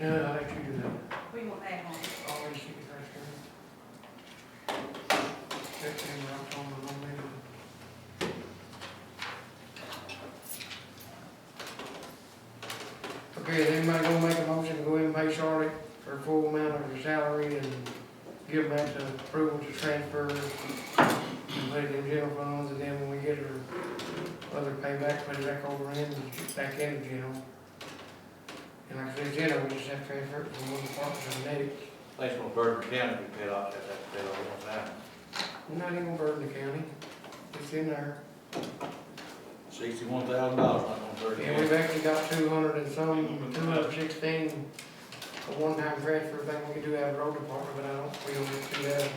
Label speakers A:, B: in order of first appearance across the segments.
A: No, I actually do that.
B: We want that one.
A: Always keep it right here. Check in, rock on, and on, maybe. Okay, is anybody gonna make a motion, to go ahead and pay Charlotte her full amount of her salary and give back the approval to transfer and put it in general funds, and then when we get her other payback, put it back over in, and back in the general. And like I said, general, we just have to transfer it from one department to the next.
C: Place on Burton County, we paid off that, that, that all the time.
A: We're not even burden the county, it's in there.
C: Sixty-one thousand dollars on Burton
A: And
C: County.
A: we've actually got two hundred and some, two hundred and sixteen, a one-time transfer thing we can do out of the road department, but I don't, we don't do that,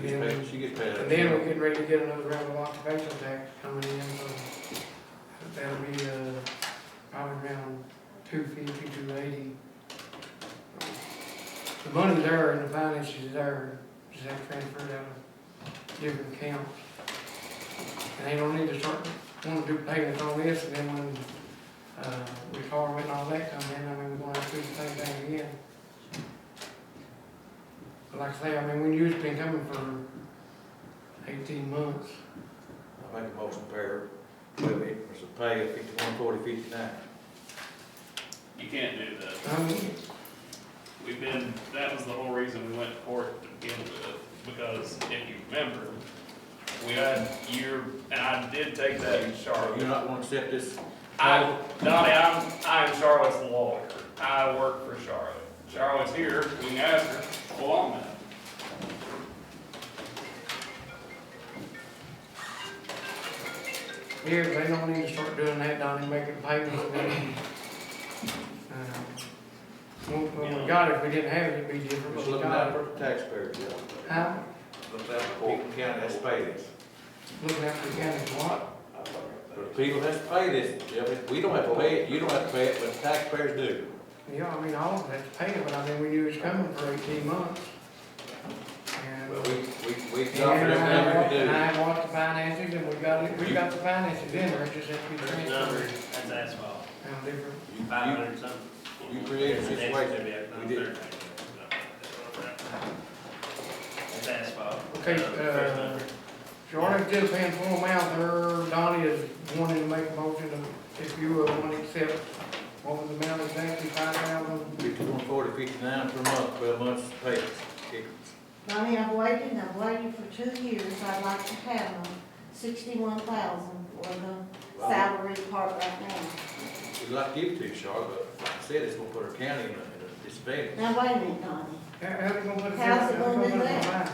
A: I don't think.
C: She gets paid, she gets paid.
A: And then we're getting ready to get another round of occupational tax coming in, so that'll be, uh, probably around two fifty, two eighty. The money's there and the finances is there, just have to transfer it out of different accounts. And they don't need to start, wanna do payments on this, and then when, uh, retirement and all that come in, I mean, we're gonna have to do the same thing again. But like I say, I mean, we used to been coming for eighteen months.
C: I make a motion pair, twelve increments of pay of fifty-one, forty, fifty-nine.
D: You can't do that.
A: Um,
D: We've been, that was the whole reason we went to court to begin with, because if you remember, we had your, and I did take that in
C: Are you
D: Charlotte.
C: not gonna accept this?
D: I, Donnie, I'm, I'm Charlotte's lawyer. I work for Charlotte. Charlotte's here, we can ask her, well, on that.
A: yeah, they don't need to start doing that, Donnie, making payments. and then, uh, When when we got it, if we didn't have it, it'd be different.
C: Just
A: but we
C: looking
A: got
C: out
A: it.
C: for the taxpayers, yeah.
A: Huh?
C: Looking out for Burton County, that's pay this.
A: Looking after the county, what?
C: But the people has to pay this, yeah, but we don't have to pay it, you don't have to pay it, but the taxpayers do.
A: Yeah, I mean, all of that's paid, but I mean, we knew it was coming for eighteen months. And-
C: But we, we, we
A: And
C: offer them
A: I
C: everything
A: and
C: we
A: I watched the finances and we got it, we got the finances in there, it just has to be
E: There's numbers,
A: transferred.
E: that's asphalt,
A: Now, different,
C: do.
E: five
C: You- you-
E: hundred something.
C: you created a
E: That's
C: situation.
E: gonna be a-
C: We did.
E: That's asphalt.
A: Okay,
E: First
A: uh,
E: number.
A: Charlotte did pay in full amount there, Donnie is wanting to make a motion to, if you uh, want to accept, what was the amount exactly, five thousand?
C: Fifty-one, forty, fifty-nine per month, twelve months pay.
F: Mommy, I've waited, I've waited for two years, I'd like to have them, sixty-one thousand for the salary part right now.
C: We'd like to give it to you, Charlotte, but like I said, it's gonna put our county in a disadvantage.
F: Now, wait a minute, Donnie,
A: How, how's it gonna put it?
F: How's it gonna do that?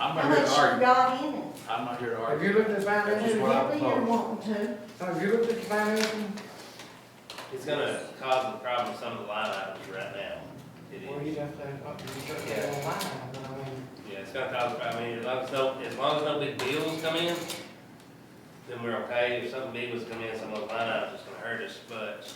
C: I'm
F: how
C: not here
F: much
C: to
F: you
C: argue,
F: got in it?
C: I'm not here to
A: Have
C: argue.
A: you looked at the finances,
C: That's
F: Do
C: what I
F: whatever you're
C: proposed.
F: wanting to,
A: have you looked at the finances?
E: It's gonna cause a problem with some of the line items right now. It
A: Well,
E: is.
A: you have to, up to the certain
E: Yeah.
A: line, but I mean,
E: Yeah, it's gonna cause, a problem. I mean, as long as no, as long as no big bills come in, then we're okay. If something big was coming in, some of those line items is gonna hurt us, but,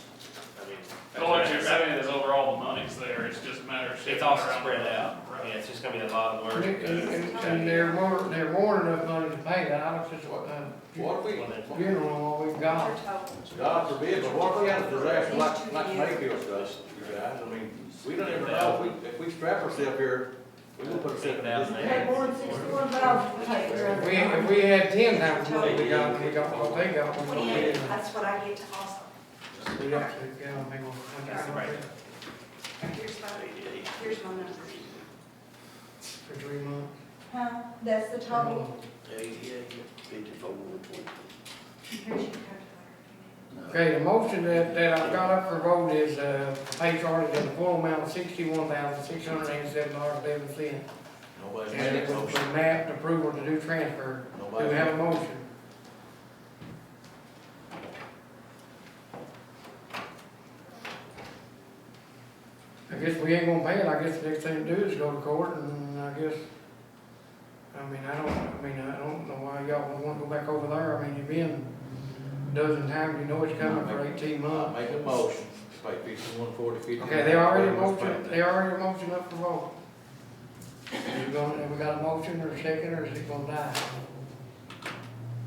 E: I mean.
D: So what you're saying is overall the money's there, it's just a matter of. shifting
E: It's all
D: around.
E: spread out.
D: Right.
E: Yeah, it's just gonna be a lot of work.
A: and, and, and they're more, they're more than enough money to pay that, I don't just, what, uh,
C: What if we,
A: funeral, and all we've got.
B: Your total.
C: God forbid, but what if we had a disaster like, like Mayfield does, you guys, I mean, we don't ever know, if we, if we strap ourselves here, we will put ourselves in a
F: you had
C: disadvantage.
F: more than sixty-one thousand to take care
A: If
F: of
A: we,
F: it.
A: if we had ten times what we got, we got what they got, we don't
B: Twenty-eight,
A: need it.
B: that's what I get to also.
A: We don't, we don't make one.
B: That's
E: right.
B: And here's my, here's my number.
A: For three months.
F: Huh? That's the total.
B: Here's your calculator.
A: Okay, the motion that, that I've got up for vote is, uh, pay Charlie the full amount of sixty-one thousand, six hundred eighty-seven dollars, eleven cents.
C: Nobody's made
A: And
C: it,
A: it was for map approval to do transfer. Do we
C: nobody's
A: have a motion? I guess we ain't gonna pay it, I guess the next thing to do is go to court, and I guess, I mean, I don't, I mean, I don't know why y'all would wanna go back over there, I mean, you've been a dozen times, you know it's coming for eighteen months.
C: Make a motion, pay fifty-one, forty, fifty-nine.
A: Okay, they already
C: twelve months
A: motioned,
C: pay.
A: they already motioned up for vote. You gonna, have we got a motion or a second, or is it gonna die?